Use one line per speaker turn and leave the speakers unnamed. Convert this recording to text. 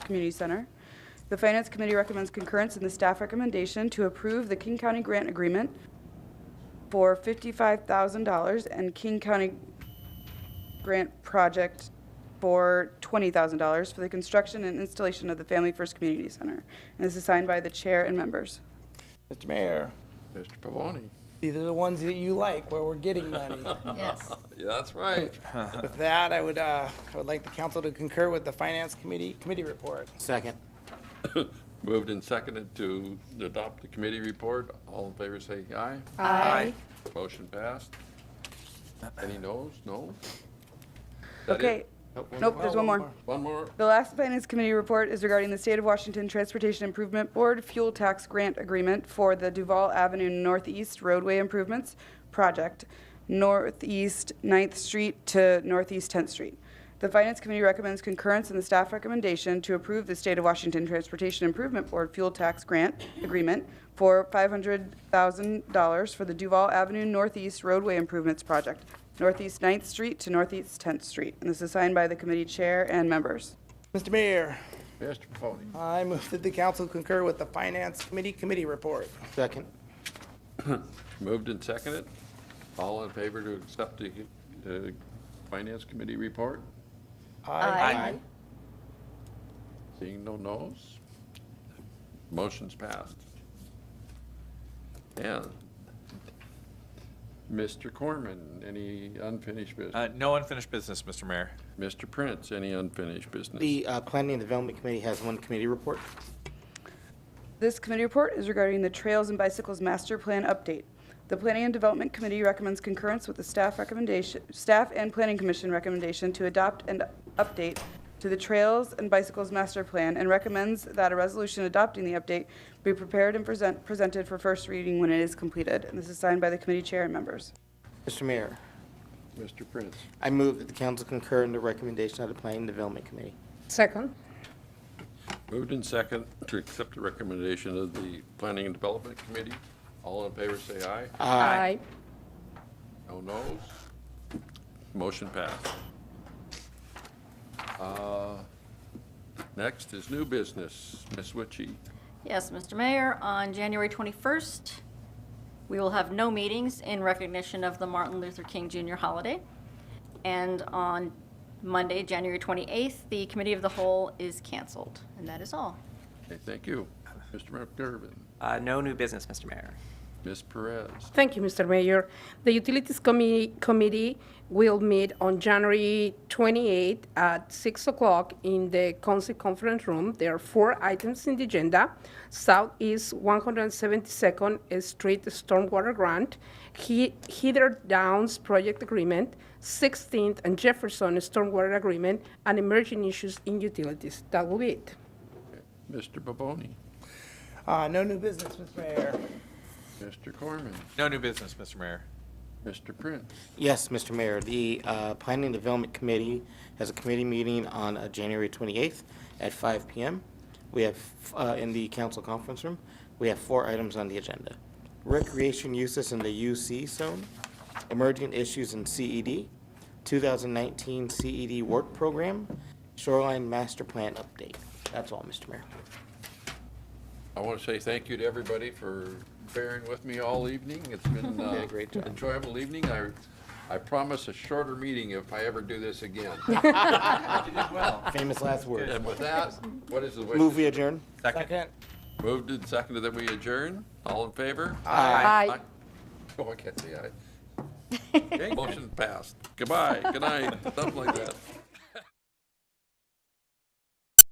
Community Center. The Finance Committee recommends concurrence in the staff recommendation to approve the King County Grant Agreement for $55,000 and King County Grant Project for $20,000 for the construction and installation of the Family First Community Center. And this is signed by the chair and members.
Mr. Mayor,
Mr. Pavoni.
these are the ones that you like where we're getting money.
Yes.
Yeah, that's right.
With that, I would, uh, I would like the council to concur with the Finance Committee, Committee report.
Second.
Moved and seconded to adopt the committee report. All in favor say aye.
Aye.
Motion passed. Any noes? No? Is that it?
Okay. Nope, there's Oh, one more.
One more?
The last Finance Committee report is regarding the State of Washington Transportation Improvement Board Fuel Tax Grant Agreement for the Duval Avenue Northeast Roadway Improvements Project, Northeast 9th Street to Northeast 10th Street. The Finance Committee recommends concurrence in the staff recommendation to approve the State of Washington Transportation Improvement Board Fuel Tax Grant Agreement for $500,000 for the Duval Avenue Northeast Roadway Improvements Project, Northeast 9th Street to Northeast 10th Street. And this is signed by the committee chair and members.
Mr. Mayor,
Mr. Pavoni.
I move that the council concur with the Finance Committee, Committee report.
Second.
Moved and seconded. All in favor to accept the uh, Finance Committee report?
Aye.
Seeing no noes? Motion's passed. And Mr. Corman, any unfinished business?
Uh, No unfinished business, Mr. Mayor.
Mr. Prince, any unfinished business?
The uh, Planning and Development Committee has one committee report.
This committee report is regarding the Trails and Bicycles Master Plan update. The Planning and Development Committee recommends concurrence with the staff recommendation, staff and Planning Commission recommendation to adopt and update to the Trails and Bicycles Master Plan and recommends that a resolution adopting the update be prepared and present, presented for first reading when it is completed. And this is signed by the committee chair and members.
Mr. Mayor,
Mr. Prince,
I move that the council concur in the recommendation of the Planning and Development Committee.
Second.
moved in second to accept the recommendation of the Planning and Development Committee. All in favor, say aye.
Aye.
No noes? Motion passed. Uh, Next is new business. Ms. Witchy.
Yes, Mr. Mayor, on January 21st, we will have no meetings in recognition of the Martin Luther King Jr. holiday. And on Monday, January 28th, the Committee of the Whole is canceled. And that is all.
Okay, Thank you. Mr. McGurven,
Uh, No new business, Mr. Mayor.
Ms. Perez,
Thank you, Mr. Mayor. The Utilities Commi- Committee will meet on January 28 at 6 o'clock in the Council Conference Room. There are four items in the agenda. Southeast 172nd Street Stormwater Grant, He- Heather Downs Project Agreement, 16th and Jefferson Stormwater Agreement, and Emerging Issues in Utilities. That will be it.
Mr. Baboni,
Uh, no new business, Mr. Mayor.
Mr. Corman,
No new business, Mr. Mayor.
Mr. Prince,
Yes, Mr. Mayor, the uh, Planning and Development Committee has a committee meeting on uh, January 28th at 5 PM. We have, uh, in the council conference room, we have four items on the agenda. Recreation uses in the UC zone, emerging issues in E CED, 2019 CED E work program, shoreline master plan update. That's all, Mr. Mayor.
I want to say thank you to everybody for bearing with me all evening. It's been uh,
a great job.
enjoyable evening. I, I promise a shorter meeting if I ever do this again.
Famous last words.
And with that, what is the wish?
Move we adjourn?
Second.
Moved and seconded that we adjourn. All in favor?
Aye.
Oh, I can't say aye. Motion passed. Goodbye, good night, something like that.